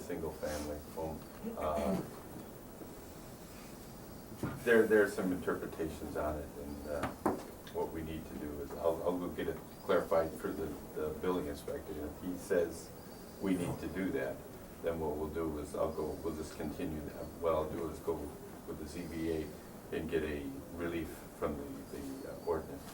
single family home. Uh, There, there are some interpretations on it, and uh, what we need to do is, I'll, I'll go get it clarified for the, the building inspector. And If he says we need to do that, then what we'll do is, I'll go, we'll just continue that. What I'll do is go with the ZBA and get a relief from the, the uh, ordinance.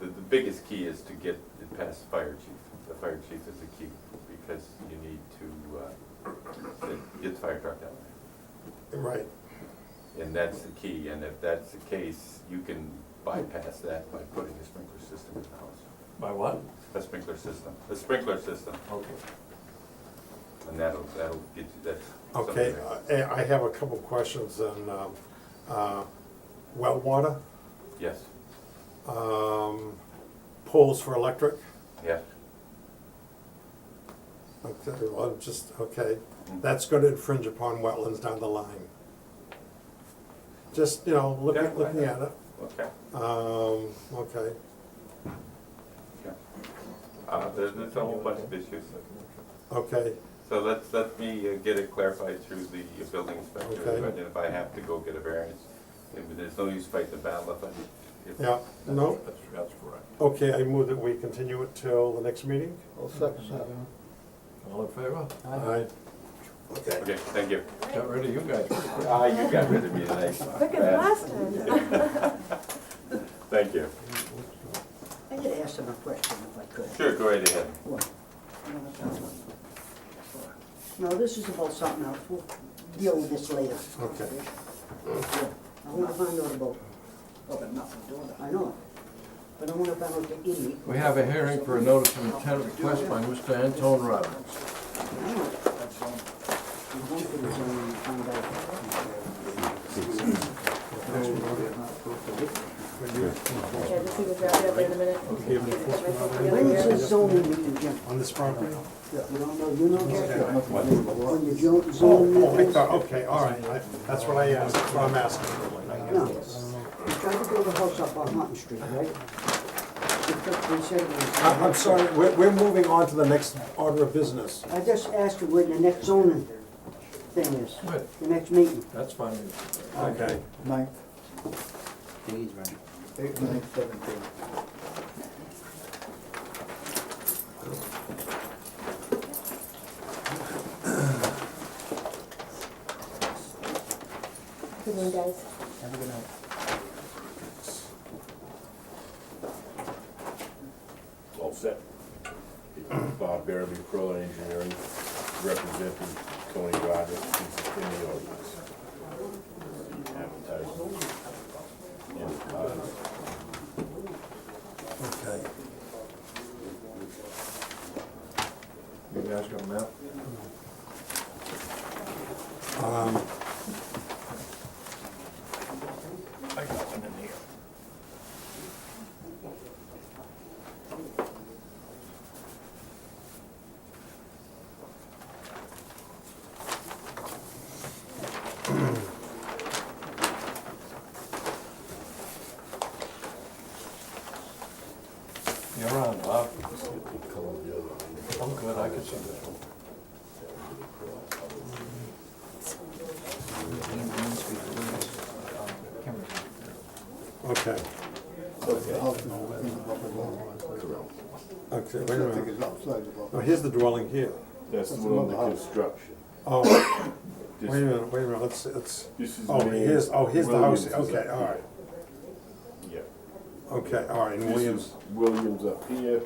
The, the biggest key is to get it past fire chief. The fire chief is the key, because you need to, uh, get the fire truck down Right. there. And that's the key, and if that's the case, you can bypass that by putting a sprinkler system in the house. By what? A sprinkler system, a sprinkler system, Okay. and that'll, that'll get you, that's. something Okay, Uh, eh, there. I, I have a couple questions on, um, uh, well water, Yes, um, poles for electric. yeah, Okay, well, I'm just, okay, that's gonna infringe upon wetlands down the line. Just, you know, Yeah, I looking, looking at know. it, okay, um, okay, yeah. Uh, there's, there's a whole bunch of issues, okay, So let's, let me uh, get it clarified through the building inspector, Okay. and if I have to go get a variance, if there's no use fighting the battle if I. if- yeah, no, That's, that's correct. okay, I move that we continue it till the next meeting? I'll second that. All in favor? Aye. Okay. Okay, thank you. Got rid of you guys pretty quick. Ah, you got rid of me tonight. Look at last time. Thank you. I could ask him a question if I could. Sure, go right ahead. What? I don't know if that's what- No, this is about something else, we'll deal with this later. Okay. Yeah, I wanna find out about, oh, I'm not gonna do that, I know, but I wanna find out the idiot. We have a hearing for a notice of intent request by Mr. Anton Robbins. I know. I'm hoping it's only find Yeah, just see what's out there in a minute. Get myself out. When together is here. the zoning meeting, Jim? On this property? You don't know, you don't care? What? When the zo- zoning Oh, meeting oh, I is? thought, okay, all right, I- that's what I asked, that's what I'm asking. No, we tried to build a house up on Martin Street, right? They took- they said it was- I- Uh, I'm sorry, we're, we're moving on to the next order of business. I just asked you where the next zoning thing is, Good, the next meeting. that's fine. Okay. Ninth. Days, right. Eight, nine, seventeen. Good one, guys. Have a good night. All set. Bob Barrowby, Pearl Engineering, representing Tony Rogers, he's in the audience. uh, Advertising. And, uh, Okay. You guys got a map? Um, I got one in here. You're on, Bob. I'm good, I can see this one. Okay, okay, wait a minute. Oh, here's the dwelling here. That's the one on the construction. Oh, wait This- a minute, wait a minute, let's, it's, This is. oh, the main- here's, oh, here's the house, Williams is okay, up all right, here. okay, all right, Yeah. and This Williams. is Williams up here,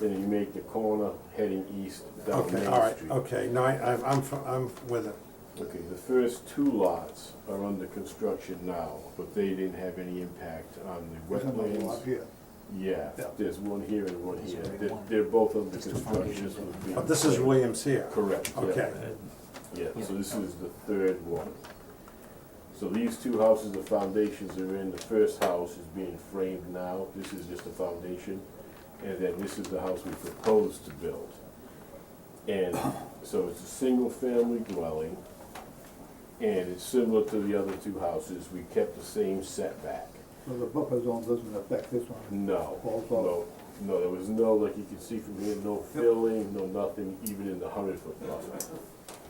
then you make the corner heading east down Main Street. Okay, all right, okay, no, I, I'm- I'm, f- I'm with it. Okay, the first two lots are under construction now, but they didn't have any impact on the wetlands. Yeah, Yeah. there's one here and one here. There's They're, one. they're both under There's two construction. foundations. This would be- But Oh, this is Williams here. Correct, yeah. Okay, Yeah, so this is the third one. So these two houses, the foundations are in, the first house is being framed now, this is just a foundation. And then this is the house we propose to build. And so it's a single-family dwelling, and it's similar to the other two houses, we kept the same setback. So the buffer zone doesn't affect this one? No, Falls off. no, No, there was no, like you can see from here, no filling, no nothing, even in the hundred foot prospect.